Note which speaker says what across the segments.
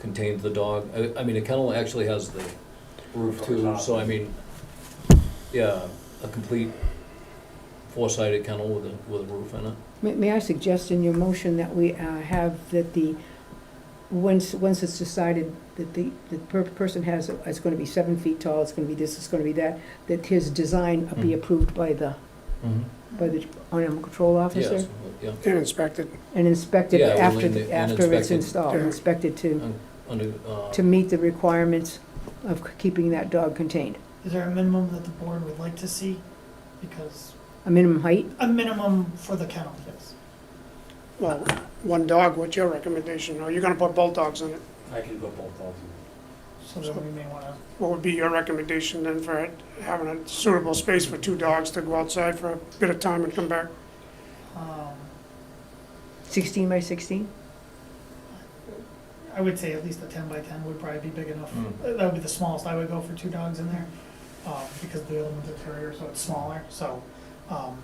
Speaker 1: contains the dog. I, I mean, a kennel actually has the roof too, so I mean, yeah, a complete four-sided kennel with a, with a roof in it.
Speaker 2: May- May I suggest in your motion that we uh, have that the, once, once it's decided that the, the per- person has, it's gonna be seven feet tall, it's gonna be this, it's gonna be that, that his design be
Speaker 1: Mhm.
Speaker 2: approved by the, by the animal control
Speaker 1: Yes,
Speaker 2: officer
Speaker 1: yeah,
Speaker 3: And inspect it.
Speaker 2: and inspected
Speaker 1: Yeah, well,
Speaker 2: after,
Speaker 1: and-
Speaker 2: the-
Speaker 1: and
Speaker 2: after it's
Speaker 1: inspected.
Speaker 2: installed,
Speaker 3: Yeah.
Speaker 2: inspected to,
Speaker 1: under, uh,
Speaker 2: to meet the requirements of keeping that dog contained.
Speaker 4: Is there a minimum that the board would like to see? Because,
Speaker 2: A minimum height,
Speaker 4: a minimum for the kennel, yes.
Speaker 3: Well, one dog, what's your recommendation? Are you gonna put both dogs in it?
Speaker 5: I can go both dogs in.
Speaker 4: So then we may wanna,
Speaker 3: What would be your recommendation then for it- having a suitable space for two dogs to go outside for a bit of time and come back?
Speaker 4: um,
Speaker 2: sixteen by sixteen?
Speaker 4: I would say at least a ten by ten would probably be big enough.
Speaker 1: Mm.
Speaker 4: Uh, That would be the smallest I would go for two dogs in there, um, because the other one's a terrier, so it's smaller, so, um,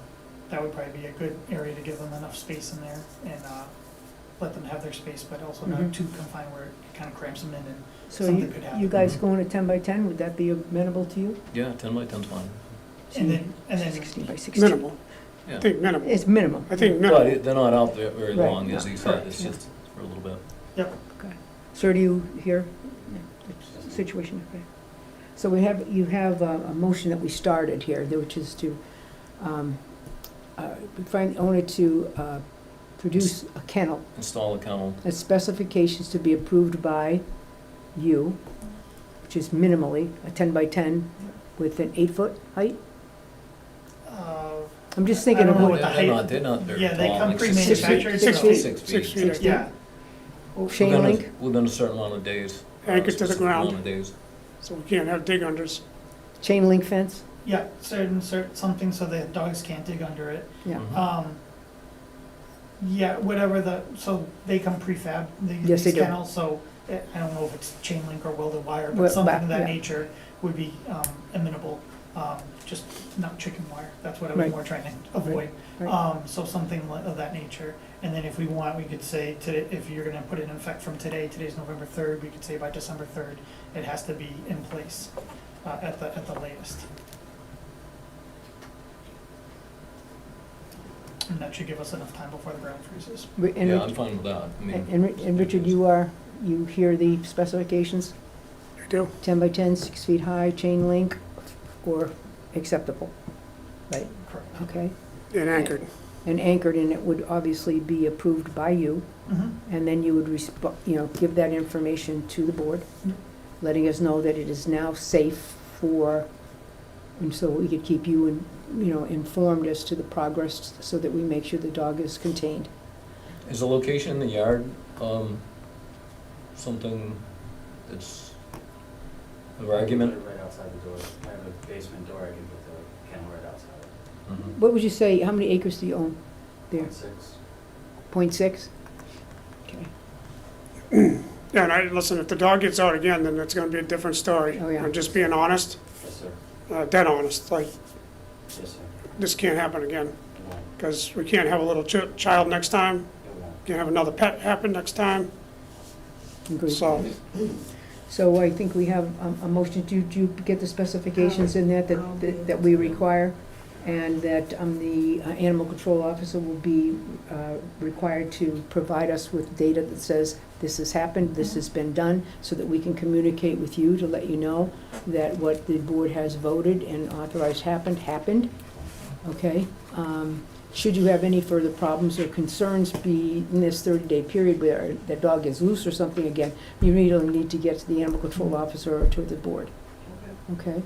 Speaker 4: that would probably be a good area to give them enough space in there and, uh, let them have their space, but also not
Speaker 2: Mhm.
Speaker 4: too confined where it kind of cramps them in and
Speaker 2: So
Speaker 4: Something
Speaker 2: you,
Speaker 4: could happen.
Speaker 2: you guys
Speaker 1: Mm-hmm.
Speaker 2: going to ten by ten, would that be amenable to you?
Speaker 1: yeah, ten by ten's fine.
Speaker 4: And then, and then,
Speaker 2: Sixteen by sixteen.
Speaker 3: Minimal.
Speaker 1: Yeah.
Speaker 3: I think minimal.
Speaker 2: It's minimum.
Speaker 3: I think
Speaker 1: But
Speaker 3: minimal.
Speaker 1: it- they're not out there very
Speaker 2: Right.
Speaker 1: long, as he said, it's
Speaker 4: Yeah.
Speaker 1: just for a little bit.
Speaker 2: Sir, do you hear the situation? Okay. So we have, you have a, a motion that we started here, that- which is to, um, uh, find the owner to, uh, produce a kennel,
Speaker 1: Install a kennel,
Speaker 2: and specifications to be approved by you, which is minimally a ten by ten with an eight-foot height?
Speaker 4: uh,
Speaker 2: I'm just
Speaker 4: I
Speaker 2: thinking
Speaker 4: don't
Speaker 2: of
Speaker 4: know
Speaker 2: what,
Speaker 4: what the
Speaker 1: They're not,
Speaker 4: height-
Speaker 1: they're not very tall.
Speaker 4: Yeah, they come
Speaker 1: like six-
Speaker 4: pre-manufactured,
Speaker 2: Six
Speaker 4: so-
Speaker 2: feet.
Speaker 1: Six feet.
Speaker 3: Six feet.
Speaker 4: yeah.
Speaker 1: We're
Speaker 2: chain
Speaker 1: gonna-
Speaker 2: link?
Speaker 1: Within a certain amount of days. uh,
Speaker 3: Anchored to the
Speaker 1: specific
Speaker 3: ground.
Speaker 1: amount of days.
Speaker 3: So we can't have dig unders.
Speaker 2: Chain link fence?
Speaker 4: Yeah, certain, certain, something so that dogs can't dig under it.
Speaker 2: Yeah.
Speaker 1: Mhm.
Speaker 2: Uh,
Speaker 4: Um, yeah, whatever the, so they come prefab, the-
Speaker 2: Yes,
Speaker 4: these
Speaker 2: they do.
Speaker 4: kennels, so eh, I don't know if it's chain link or welded wire,
Speaker 2: Well,
Speaker 4: but something
Speaker 2: but-
Speaker 4: of that
Speaker 2: yeah.
Speaker 4: nature would be, um, amenable. Um, just not chicken wire, that's what I was
Speaker 2: Right.
Speaker 4: more trying to avoid.
Speaker 2: right.
Speaker 4: Um, so something li- of that nature. And then if we want, we could say today, if you're gonna put it in effect from today, today's November third, we could say by December third, it has to be in place, uh, at the, at the latest. And that should give us enough time before the ground freezes.
Speaker 2: Ri- and
Speaker 1: Yeah,
Speaker 2: Rich-
Speaker 1: I'm fine with that. I mean,
Speaker 2: And, and Ri- and Richard, you are, you hear the specifications?
Speaker 3: I do.
Speaker 2: 10 by 10, six feet high, chain link, or acceptable,
Speaker 4: Correct.
Speaker 2: okay?
Speaker 3: And anchored.
Speaker 2: And anchored, and it would obviously be approved by you,
Speaker 4: Mhm.
Speaker 2: and then you would respond, you know, give that information to the board,
Speaker 4: Yep.
Speaker 2: letting us know that it is now safe for, and so we could keep you, in- you know, informed as to the progress, so that we make sure the dog is contained.
Speaker 1: Is the location in the yard, um, something that's of argument?
Speaker 5: Right outside the door. I have a basement door, I can put the kennel right outside.
Speaker 1: Mhm.
Speaker 2: What would you say, how many acres do you own? There,
Speaker 5: Six.
Speaker 2: point six? Okay.
Speaker 3: Yeah, and I, listen, if the dog gets out again, then it's gonna be a different story.
Speaker 2: Oh, yeah.
Speaker 3: I'm just being honest,
Speaker 5: Yes, sir.
Speaker 3: uh, dead honest, like,
Speaker 5: Yes, sir.
Speaker 3: this can't happen again.
Speaker 5: It won't,
Speaker 3: Because we can't have a little chi- child next time,
Speaker 5: it won't.
Speaker 3: can't have another pet happen next time,
Speaker 2: Agreed.
Speaker 3: so.
Speaker 2: So I think we have um, a motion, do do you get the specifications in that, that- that that we require? And that um, the uh, animal control officer will be uh, required to provide us with data that says, this has happened, this has been done, so that we can communicate with you to let you know that what the board has voted and authorized happened, happened, okay? Um, Should you have any further problems or concerns be in this 30-day period where that dog is loose or something again, you really need to get to the animal control officer or to the board. Okay?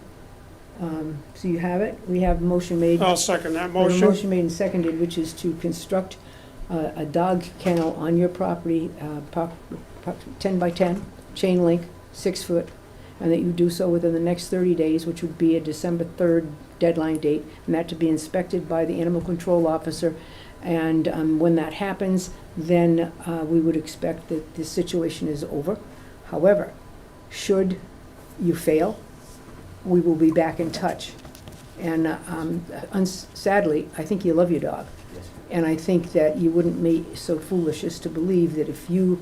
Speaker 2: Um, So you have it. We have a motion made.
Speaker 3: I'll second that
Speaker 2: we have a
Speaker 3: motion.
Speaker 2: Motion made and seconded, which is to construct uh, a dog kennel on your property, uh, pro- pro- 10 by 10, chain link, six foot, and that you do so within the next 30 days, which would be a December 3rd deadline date, and that to be inspected by the animal control officer. And um, when that happens, then uh, we would expect that the situation is over. However, should you fail, we will be back in touch. And uh, um, uns- sadly, I think you love your dog.
Speaker 5: Yes, sir.
Speaker 2: And I think that you wouldn't be so foolish as to believe that if you